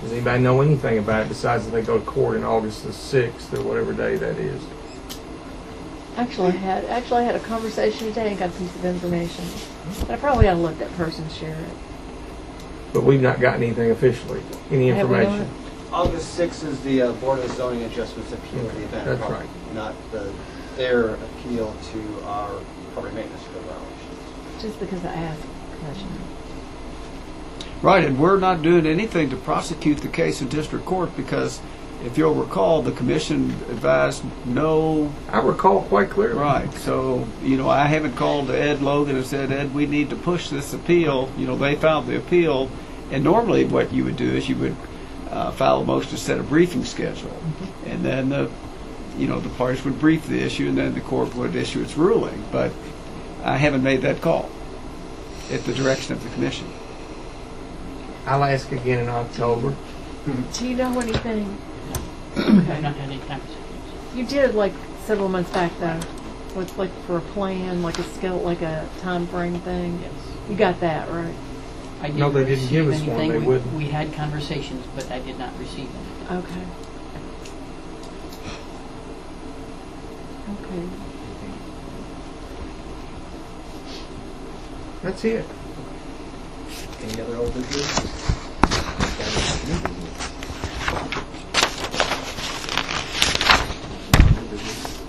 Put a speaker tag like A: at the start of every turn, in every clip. A: Does anybody know anything about it besides that they go to court in August the sixth or whatever day that is?
B: Actually, I had, actually, I had a conversation today and got a piece of information. But I probably ought to let that person share it.
A: But we've not gotten anything officially, any
B: Have we not?
A: information.
C: August 6th is the uh, Board of Zoning Adjustments appeal of the event.
A: That's
C: property, Not the, their appeal to our property maintenance code violations.
B: Just because I asked a question.
D: Right, and we're not doing anything to prosecute the case in district court because if you'll recall, the commission advised no,
A: I recall quite clearly.
D: right. So, you know, I haven't called to Ed Logan and said, Ed, we need to push this appeal. You know, they filed the appeal. And normally what you would do is you would uh, file a motion to set a briefing schedule. And then the, you know, the parties would brief the issue and then the court would issue its ruling. But I haven't made that call at the direction of the commission.
A: I'll ask again in October.
B: Do you know anything?
E: I've not had any conversations.
B: You did like several months back though, with like for a plan, like a skill, like a time frame thing.
E: Yes.
B: You got that right?
E: I
A: No, they didn't give
E: receive
A: us one.
E: anything.
A: They
E: We-
A: wouldn't.
E: We had conversations, but I did not receive anything.
B: Okay. Okay.
A: That's it.
C: Any other old business?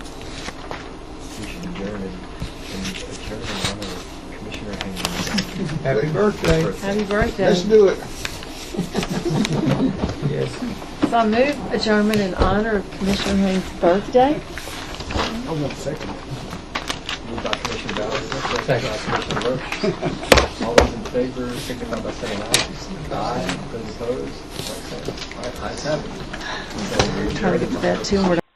F: We should adjourn and, and adjourn in honor of Commissioner Haynes.
A: Happy birthday.
B: Happy birthday.
D: do it.
A: Yes.
B: So I move adjournment in honor of Commissioner Haynes' birthday.
D: I won't second it.
C: Moved by Commissioner Bowers,
A: Second.
C: seconded by Commissioner Roach. All those in favor, signify by saying aye. Aye. Those opposed, like sign. Ayes have it.
B: Try to get to that too. and we're